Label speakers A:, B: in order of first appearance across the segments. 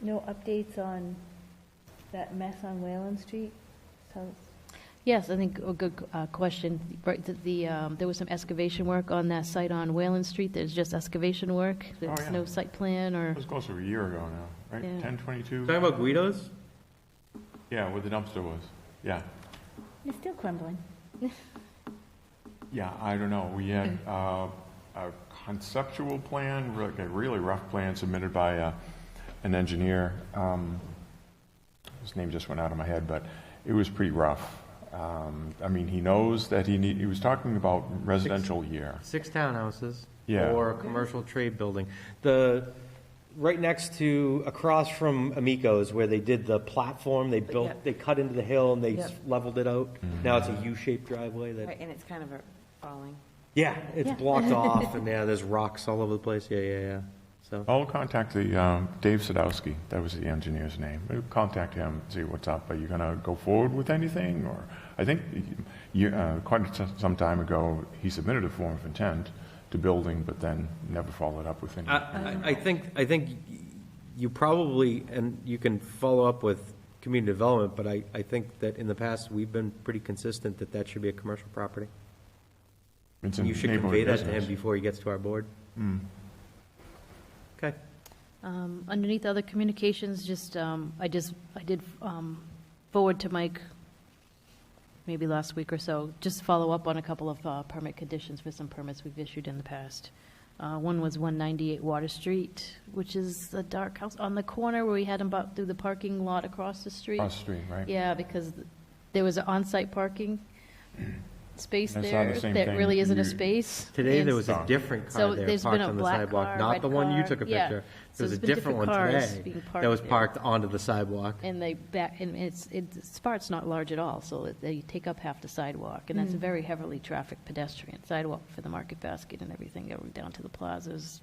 A: No updates on that mess on Whalen Street? So,
B: Yes, I think a good uh, question. Right, the- The, um, there was some excavation work on that site on Whalen Street. There's just excavation work. There's
C: yeah.
B: no site plan
C: It
B: or,
C: was close to a year ago now, right?
B: Yeah.
C: 1022?
D: Talking about Guido's?
C: Yeah, where the dumpster was. Yeah,
A: it's still crumbling.
C: yeah, I don't know. We had uh, a conceptual plan, re- like a really rough plan submitted by uh, an engineer. Um, His name just went out of my head, but it was pretty rough. Um, I mean, he knows that he need, he was talking about residential year.
D: Six townhouses.
C: Yeah.
D: Or a commercial trade building. The, right next to, across from Amico's where they did the platform, they
E: Yep.
D: built, they cut into the hill and they
E: Yep.
D: leveled it out. Now it's a U-shaped driveway
E: Right,
D: that,
E: and it's kind of a falling.
D: yeah, it's
B: Yeah.
D: blocked off and yeah, there's rocks all over the place. Yeah, yeah, yeah. So,
C: I'll contact the, um, Dave Sadowski, that was the engineer's name. We'll Contact him, see what's up. Are you going to go forward with anything, or, I think, you- uh, quite s- some time ago, he submitted a form of intent to building, but then never followed up with any.
D: I, I- I think, I think you probably, and you can follow up with community development, but I, I think that in the past, we've been pretty consistent that that should be a commercial property.
C: It's in
D: You should
C: neighborhood
D: convey that to him
C: business. Hmm.
D: before he gets to our board. Okay.
B: um, underneath other communications, just, um, I just, I did um, forward to Mike maybe last week or so, just follow up on a couple of uh, permit conditions for some permits we've issued in the past. Uh, One was 198 Water Street, which is the dark house on the corner where we had him bought through the parking lot across the street.
C: Across the street, right?
B: Yeah, because th- there was an on-site parking space
C: That's not
B: there
C: the same
B: that
C: thing
B: really isn't a
C: you-
B: space.
D: Today,
B: And
D: there was a
C: Stop.
D: different
B: So
D: car there
B: there's been
D: parked
B: a
D: on the
B: black
D: sidewalk,
B: car,
D: not
B: red
D: the one you took a
B: car, yeah.
D: picture.
B: So
D: There was a
B: there's been
D: different one
B: different cars
D: today
B: being
D: that was
B: parked there.
D: parked onto the sidewalk.
B: And they back, and it's, it's, Spart's not large at all, so it- they take up half the sidewalk, and that's a very heavily trafficked pedestrian sidewalk for the market basket and everything, going down to the plazas,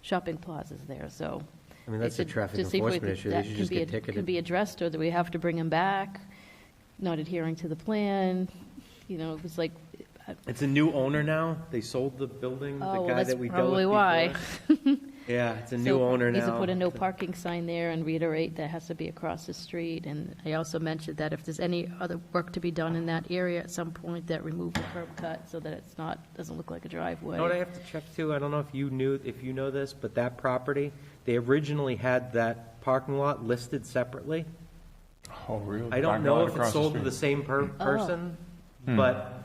B: shopping plazas there, so.
D: I mean,
B: they
D: that's a
B: should- to
D: traffic
B: see if we-
D: enforcement issue. They
B: that
D: should
B: can
D: just
B: be
D: get
B: ad- Can
D: ticketed.
B: be addressed, or that we have to bring him back, not adhering to the plan, you know, it was like, I-
D: It's a new owner now. They sold the building, the
B: oh, well,
D: guy
B: that's
D: that we dealt with
B: probably
D: before.
B: why.
D: Yeah, it's a new
B: So
D: owner now.
B: Needs to put a no parking sign there and reiterate that has to be across the street. And I also mentioned that if there's any other work to be done in that area at some point, that remove the curb cut so that it's not, doesn't look like a driveway.
D: You know what I have to check too? I don't know if you knew, if you know this, but that property, they originally had that parking lot listed separately.
C: Oh, really?
D: I
C: Parking
D: don't
C: lot
D: know if
C: across
D: it's sold to the
C: street. Hmm.
D: same per,
B: Oh.
D: person, but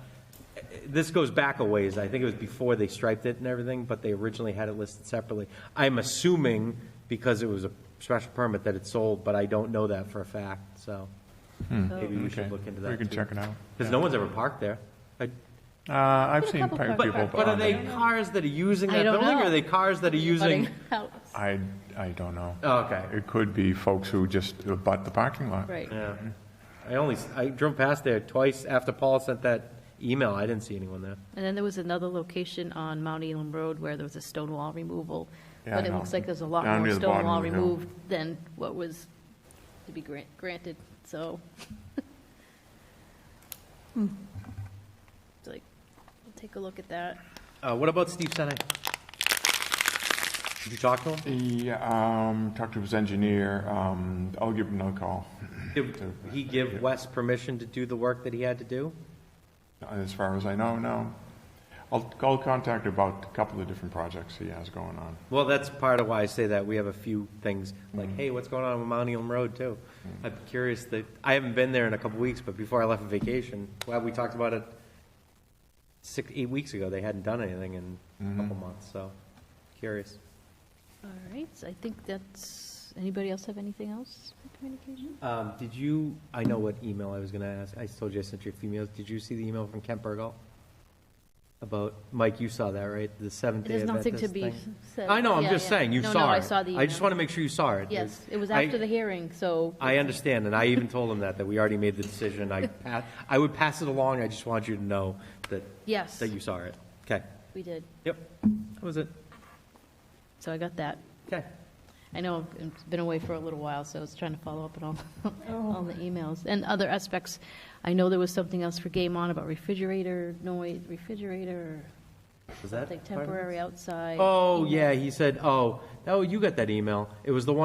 D: uh, this goes back a ways. I think it was before they striped it and everything, but they originally had it listed separately. I'm assuming because it was a special permit that it sold, but I don't know that for a fact, so maybe we
C: Hmm. Okay.
D: should look into that
C: We can
D: too.
C: check it out.
D: Because no one's ever parked there. I-
C: Uh, I've
B: Been a
C: seen
B: couple
C: people um,
B: parked
C: on
D: But, but are they
C: there.
D: cars that are using
B: I
D: that
B: don't
D: building, or
B: know.
D: are they cars that are using?
B: Butting out.
C: I, I don't know.
D: Oh, okay.
C: It could be folks who just uh, bought the parking lot.
B: Right.
D: Yeah. I only, I drove past there twice after Paul sent that email. I didn't see anyone there.
B: And then there was another location on Mount Elam Road where there was a stone wall removal.
C: Yeah,
B: But
C: I
B: it
C: know.
B: looks like there's a lot
C: Down
B: more
C: near the
B: stone
C: bottom
B: wall
C: of the hill.
B: removed than what was to be grant- granted, so. It's Like, we'll take a look at that.
D: Uh, what about Steve Senai? Did you talk to him?
C: He, um, talked to his engineer, um, I'll give him another call.
D: Did he give Wes permission to do the work that he had to do?
C: As far as I know, no. I'll, I'll contact about a couple of different projects he has going on.
D: Well, that's part of why I say that. We have a few things, like, hey, what's going on with Mount Elon Road, too? I'm curious that, I haven't been there in a couple weeks, but before I left on vacation, well, we talked about it six, eight weeks ago. They hadn't done anything in a couple months, so curious.
B: All right, so I think that's, anybody else have anything else for communication?
D: Um, did you, I know what email I was gonna ask, I told you I sent you a few emails, did you see the email from Kent Burgal? About, Mike, you saw that, right, the seventh day
B: There's nothing to
D: Adventist
B: be
D: thing?
B: said.
D: I know, I'm
B: Yeah,
D: just
B: yeah.
D: saying, you
B: No,
D: saw
B: no,
D: it.
B: I saw the
D: I just
B: email.
D: wanna make sure you saw it.
B: Yes, it was
D: I-
B: after the hearing, so.
D: I understand, and I even told him that, that we already made the decision, I, pa- I would pass it along, I just wanted you to know that,
B: Yes,
D: that you saw it. Okay,
B: we did.
D: yep, that was it,
B: So I got that.
D: okay.
B: I know I've been away for a little while, so I was trying to follow up on all, all the emails and other aspects. I know there was something else for Game On about refrigerator noise, refrigerator,
D: Was
B: like
D: that? part of it?
B: temporary outside.
D: Oh,
B: email.
D: yeah, he said, oh, oh, you got that email, it was the one